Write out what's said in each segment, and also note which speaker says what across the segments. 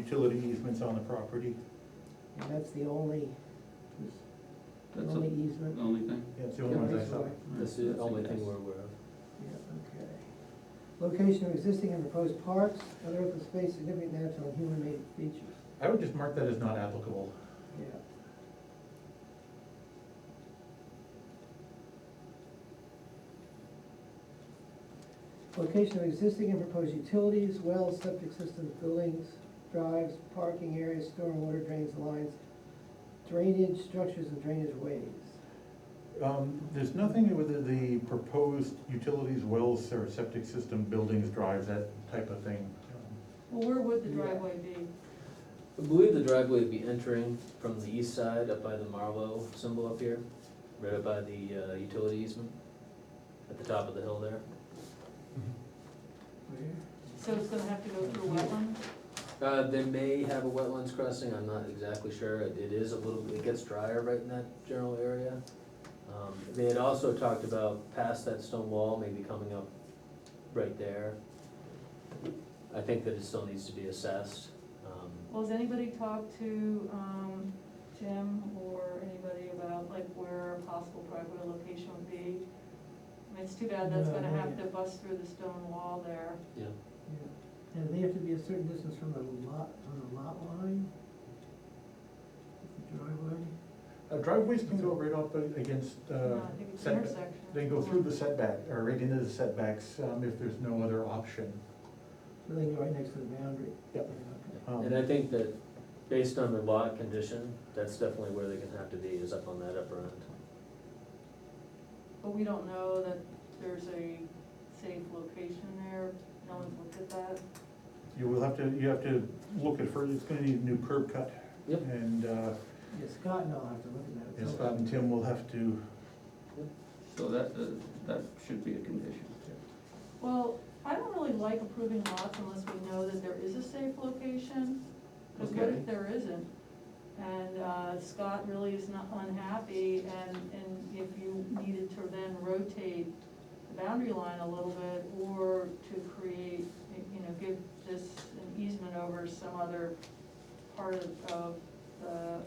Speaker 1: utility easements on the property,
Speaker 2: And that's the only, the
Speaker 3: That's
Speaker 2: only
Speaker 3: the
Speaker 2: easement.
Speaker 3: only thing?
Speaker 1: that's the only ones I saw.
Speaker 2: Sorry.
Speaker 4: That's the
Speaker 3: That's a
Speaker 4: only
Speaker 3: guess.
Speaker 4: thing we're aware of.
Speaker 2: Yeah, okay. Location of existing and proposed parks, other open space, significant natural and human-made features,
Speaker 1: I would just mark that as not applicable.
Speaker 2: yeah. Location of existing and proposed utilities, wells, septic systems, buildings, drives, parking areas, stormwater drains, lines, drainage structures and drainage ways.
Speaker 1: Um, There's nothing with the proposed utilities, wells, or septic system, buildings, drives, that type of thing.
Speaker 5: Well, where would the
Speaker 2: Yeah.
Speaker 5: driveway be?
Speaker 4: I believe the driveway would be entering from the east side up by the Marlow symbol up here, right up by the uh, utility easement, at the top of the hill there.
Speaker 5: So it's gonna have to go through wetland?
Speaker 4: Uh, They may have a wetlands crossing, I'm not exactly sure, It- it is a little, it gets drier right in that general area. Um, They had also talked about past that stone wall, maybe coming up right there. I think that it still needs to be assessed. um,
Speaker 5: Well, has anybody talked to, um, Jim or anybody about like where a possible driveway location would be? I mean, it's too bad that's
Speaker 2: No,
Speaker 5: gonna
Speaker 2: not
Speaker 5: have to
Speaker 2: yet.
Speaker 5: bust through the stone wall there.
Speaker 4: Yeah,
Speaker 2: Yeah. And they have to be a certain distance from the lot, from the lot line? The driveway?
Speaker 1: Uh, Driveways can go right up against uh,
Speaker 5: No, I think it's the
Speaker 1: setback.
Speaker 5: intersection.
Speaker 1: They go through the setback, or right into the setbacks, um, if there's no other option.
Speaker 2: So they go right next to the boundary?
Speaker 1: Yep.
Speaker 2: Yeah,
Speaker 1: Um,
Speaker 4: And I think that, based on the lot condition, that's definitely where they're gonna have to be, is up on that upper end.
Speaker 5: But we don't know that there's a safe location there, no one's looked at that.
Speaker 1: You will have to, you have to look at further, it's gonna need a new curb cut.
Speaker 4: Yep.
Speaker 1: And uh,
Speaker 2: okay. Yeah, Scott and I'll have to look at that.
Speaker 1: and Scott and Tim will have to,
Speaker 3: So that, uh, that should be a condition.
Speaker 5: Well, I don't really like approving lots unless we know that there is a safe location, because what
Speaker 3: Okay.
Speaker 5: if there isn't? And uh, Scott really is not unhappy, and, and if you needed to then rotate the boundary line a little bit, or to create, you know, give this an easement over some other part of, of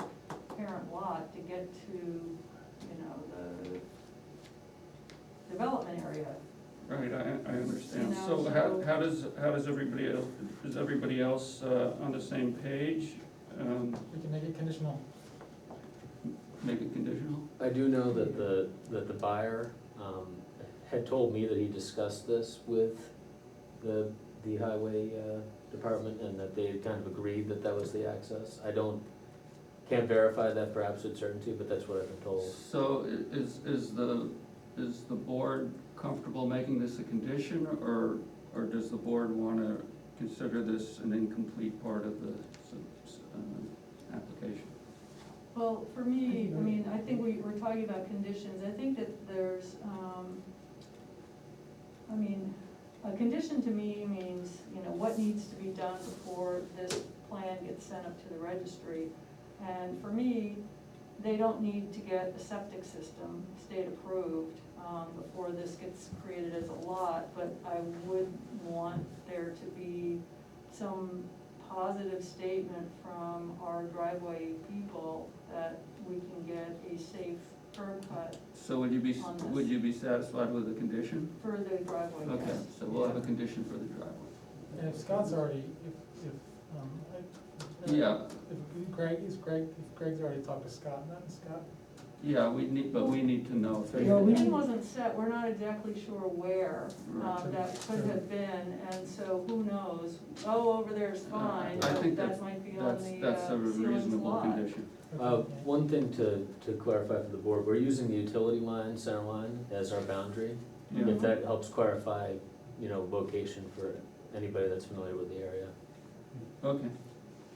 Speaker 5: the parent lot to get to, you know, the development area.
Speaker 3: Right, I, I understand.
Speaker 5: You know,
Speaker 3: So how,
Speaker 5: so-
Speaker 3: how does, how does everybody else, is everybody else uh, on the same page? Um,
Speaker 6: We can make it conditional.
Speaker 3: Make it conditional?
Speaker 4: I do know that the, that the buyer, um, had told me that he discussed this with the, the highway, uh, department, and that they had kind of agreed that that was the access. I don't, can't verify that perhaps with certainty, but that's what I've been told.
Speaker 3: So i- is, is the, is the board comfortable making this a condition, or, or does the board wanna consider this an incomplete part of the, s- s- uh, application?
Speaker 5: Well, for me, I mean, I think we, we're talking about conditions, I think that there's, um, I mean, a condition to me means, you know, what needs to be done before this plan gets sent up to the registry. And for me, they don't need to get a septic system state approved, um, before this gets created as a lot, but I would want there to be some positive statement from our driveway people that we can get a safe curb cut
Speaker 3: So would you be, s-
Speaker 5: On this.
Speaker 3: would you be satisfied with the condition?
Speaker 5: for the driveway, yes.
Speaker 3: Okay, so we'll have a condition for the driveway.
Speaker 6: And if Scott's already, if, if, um, I.
Speaker 3: Yeah,
Speaker 6: If Greg, is Greg, if Greg's already talked to Scott, not Scott,
Speaker 3: yeah, we need, but we need to know. if
Speaker 2: Yeah, we-
Speaker 3: they-
Speaker 5: It wasn't set, we're not exactly sure where
Speaker 3: Right.
Speaker 5: um, that could have been, and so who knows? Oh, over there's fine,
Speaker 3: I think
Speaker 5: that
Speaker 3: that's-
Speaker 5: might be on
Speaker 3: That's,
Speaker 5: the uh,
Speaker 3: that's a
Speaker 5: ceiling's
Speaker 3: reasonable
Speaker 5: lot.
Speaker 3: condition.
Speaker 4: Uh, one thing to, to clarify for the board, we're using the utility line, center line, as our boundary.
Speaker 3: Yeah,
Speaker 4: If that helps clarify, you know, location for anybody that's familiar with the area.
Speaker 3: okay,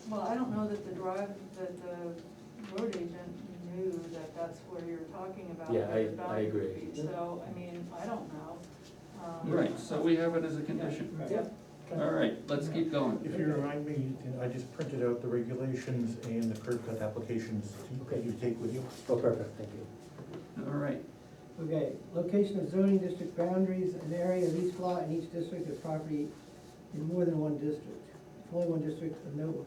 Speaker 5: Well, I don't know that the drive, that the road agent knew that that's where you're talking about.
Speaker 4: Yeah, I-
Speaker 5: the
Speaker 4: I
Speaker 5: boundary
Speaker 4: agree.
Speaker 5: feet, So, I mean, I don't know. Um,
Speaker 3: right, so we have it as a condition.
Speaker 6: Yeah.
Speaker 3: All right, let's keep going.
Speaker 1: Um, if you remind me, I just printed out the regulations and the curb cut applications that you take with you.
Speaker 4: Oh, perfect, thank you.
Speaker 3: All right,
Speaker 2: Okay, location of zoning district boundaries, an area of each lot in each district of property in more than one district. If only one district, a note